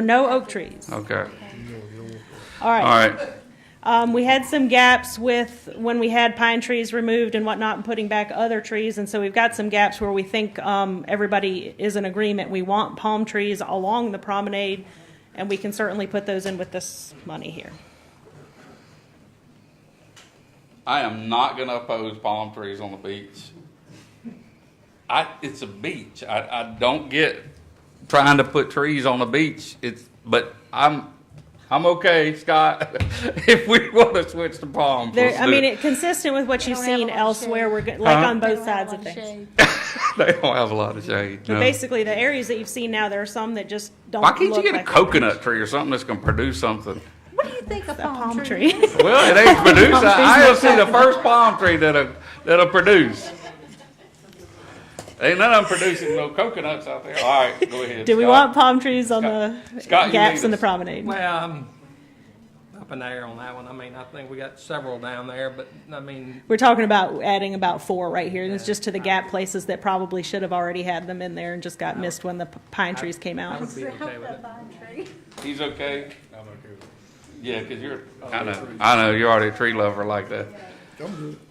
No oak trees. Okay, All all right. right, Um, we had some gaps with when we had pine trees removed and whatnot and putting back other trees. And so we've got some gaps where we think, um, everybody is in agreement. We want palm trees along the promenade and we can certainly put those in with this money here. I am not gonna oppose palm trees on the beach. I, it's a beach, I, I don't get trying to put trees on the beach, it's, but I'm, I'm okay, Scott, if we wanna switch to palms. There, let's I do Uh-huh. mean, it consistent with what you've They don't have a seen lot of elsewhere, shade. we're, go- like Huh? on They both don't have sides a of lot of things. shade. They don't have a lot of shade, But no. basically, the areas that you've seen now, there are some that just don't Why can't you look get a like- coconut tree or something that's gonna produce something? What do you think of palm Palm tree. trees? Well, it ain't producing, I have seen the first palm tree that'll, that'll produce. Ain't none of them producing no coconuts out there, all right, go ahead. Do we Scott. want palm trees on the Scott, you gaps lead in the us. promenade? Well, I'm up in the air on that one. I mean, I think we got several down there, but I mean, We're talking about adding about four right here, and it's just to the gap places that probably should have already had them in there and just got missed when the p- pine trees came I out. would be okay with it. He's okay? I'm okay with it. Yeah, because you're, I know, I know, you're already a tree lover like that.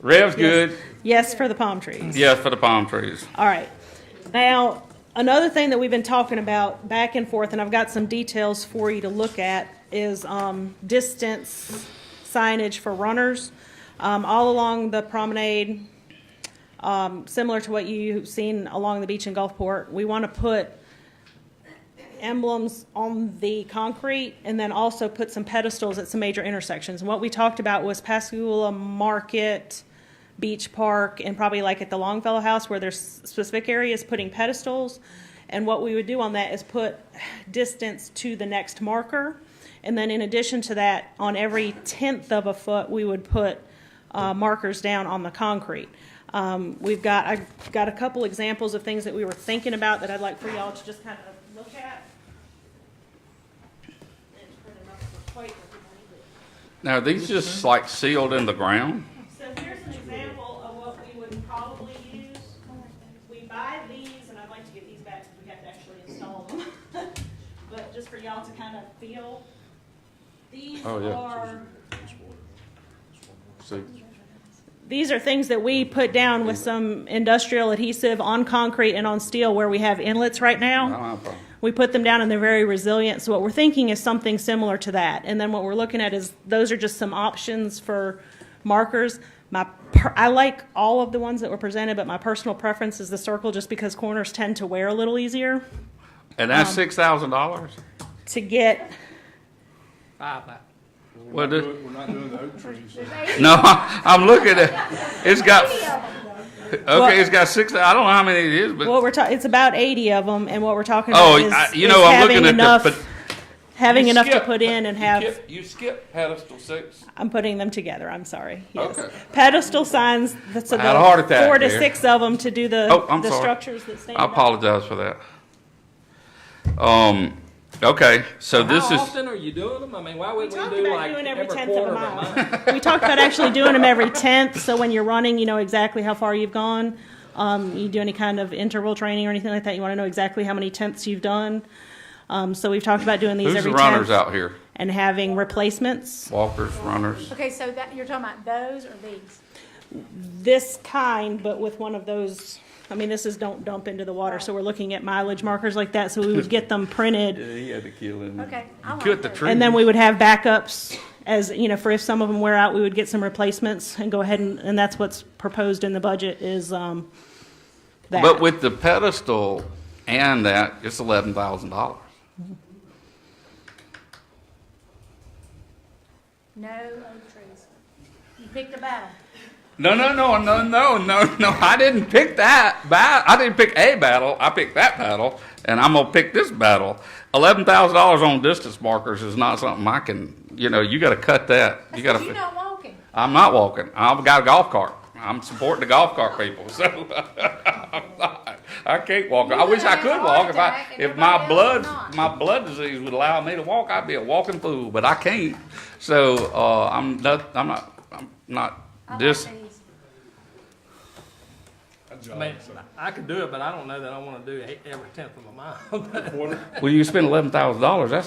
Rev's good, Yes, for the palm trees. yes, for the palm trees. All right. Now, another thing that we've been talking about back and forth, and I've got some details for you to look at, is um, distance signage for runners um, all along the promenade, um, similar to what you've seen along the beach in Gulfport. We want to put emblems on the concrete and then also put some pedestals at some major intersections. And what we talked about was Pascagoula Market, Beach Park, and probably like at the Longfellow House where there's specific areas putting pedestals. And what we would do on that is put distance to the next marker. And then in addition to that, on every tenth of a foot, we would put uh, markers down on the concrete. Um, We've got, I've got a couple examples of things that we were thinking about that I'd like for y'all to just kind of look at. And print them up for quite a Now, are these just like sealed in the ground? bit. So here's an example of what we would probably use. We buy these, and I'd like to get these back because we have to actually install them. But just for y'all to kind of feel, these Oh, yeah. are See, These are things that we put down with some industrial adhesive on concrete and on steel where we have inlets right I now. don't have a problem. We put them down and they're very resilient. So what we're thinking is something similar to that. And then what we're looking at is, those are just some options for markers. My, per- I like all of the ones that were presented, but my personal preference is the circle just because corners tend to wear a little easier And Um, that's six thousand dollars? to get. Five that. Well, this- We're not doing the oak trees. no, I'm looking at, it's got, okay, it's got six, I don't know how many it is, but, What we're talking, it's about 80 of them and what we're talking oh, about is I- you is know, I'm having looking at enough- the, but. Having You enough to skip- put in and you have. skip- You skip pedestal six. I'm putting them together, I'm sorry, yes. Okay. Pedestal signs, that's I had a heart about attack four to there. six of them to do the, Oh, I'm the sorry. structures that stand I up. apologize for that. Um, okay, so this How is, often are you doing them? I mean, why We wouldn't talked we do about like doing every every tenth of quarter a of a month? mile. We talked about actually doing them every tenth, so when you're running, you know exactly how far you've gone. Um, you do any kind of interval training or anything like that, you wanna know exactly how many tenths you've done. Um, so we've talked about doing these who's the every runners tenth out here? and having replacements. Walkers, runners? Okay, so that, you're talking about those or these? This kind, but with one of those, I mean, this is don't dump into the water, so we're looking at mileage markers like that, so we would get them printed he had to kill him. Okay. I like Cut the those. tree. And then we would have backups as, you know, for if some of them wear out, we would get some replacements and go ahead and, and that's what's proposed in the budget is, um, that. But with the pedestal and that, it's eleven thousand dollars. No oak trees. You picked a battle. No, no, no, no, no, no, no, I didn't pick that bat, I didn't pick a battle, I picked that battle, and I'm gonna pick this battle. Eleven thousand dollars on distance markers is not something I can, you know, you gotta cut that, you That's gotta. 'cause you're not walking. I'm not walking. I've got a golf cart. I'm supporting the golf cart people, so I'm not. I can't walk. I wish I could walk. If I, if my blood, my blood disease would allow me to walk, I'd be a walking fool. But I can't. So uh, I'm not. I'm not. I'm I not. like This. these. I mean, I could do it, but I don't know that I want to do eight- every e-, tenth of a mile. Well, you spend eleven thousand dollars. That's